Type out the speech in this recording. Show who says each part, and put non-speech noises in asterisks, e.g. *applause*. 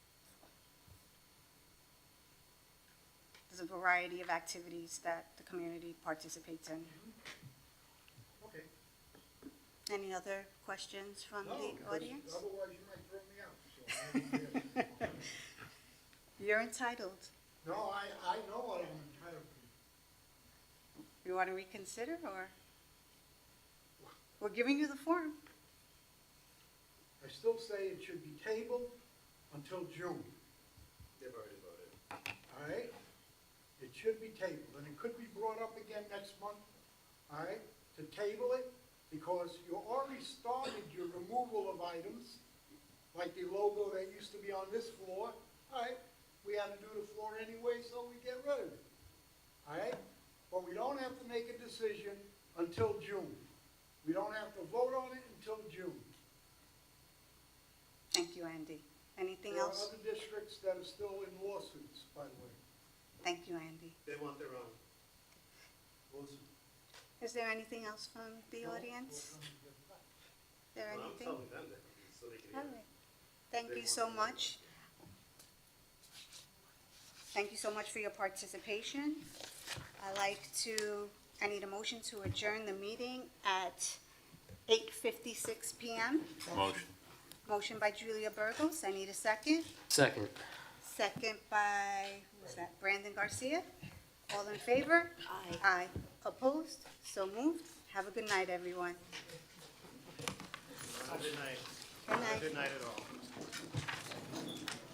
Speaker 1: variety of activities that the community participates in.
Speaker 2: Okay.
Speaker 1: Any other questions from
Speaker 2: No,
Speaker 1: the
Speaker 2: 'cause
Speaker 1: audience?
Speaker 2: Otherwise, you might throw me out, so. I
Speaker 1: *laughs*
Speaker 2: don't care. *laughs*
Speaker 1: You're entitled.
Speaker 2: No, I, I know what I'm entitled to.
Speaker 1: You want to reconsider, or? We're giving you the form.
Speaker 2: I still say it should be tabled until June,
Speaker 3: They've already voted.
Speaker 2: all right? It should be tabled, and it could be brought up again next month, all right? To table it, because you already started your removal of items, like the logo that used to be on this floor, all right? We had to do the floor anyway, so we get rid of it, all right? But we don't have to make a decision until June. We don't have to vote on it until June.
Speaker 1: Thank you, Andy. Anything
Speaker 2: There are
Speaker 1: else?
Speaker 2: other districts that are still in lawsuits, by the way.
Speaker 1: Thank you, Andy.
Speaker 3: They want their own. Wilson.
Speaker 1: Is there anything else from the audience? Is there
Speaker 3: Well, I'm
Speaker 1: anything?
Speaker 3: telling them that, so they can
Speaker 1: All
Speaker 3: hear.
Speaker 1: right. Thank
Speaker 3: They
Speaker 1: you
Speaker 3: want
Speaker 1: so
Speaker 3: to-
Speaker 1: much. Thank you so much for your participation. i like to, I need a motion to adjourn the meeting at 8:56 PM.
Speaker 4: Motion.
Speaker 1: Motion by Julia Burgos, I need a second.
Speaker 4: Second.
Speaker 1: Second by, who's that, Brandon Garcia? All in favor? Aye. Aye. Opposed? So moved. Have a good night, everyone.
Speaker 3: Not a Good night.
Speaker 1: Good
Speaker 3: Not a
Speaker 1: night.
Speaker 3: Good night at all.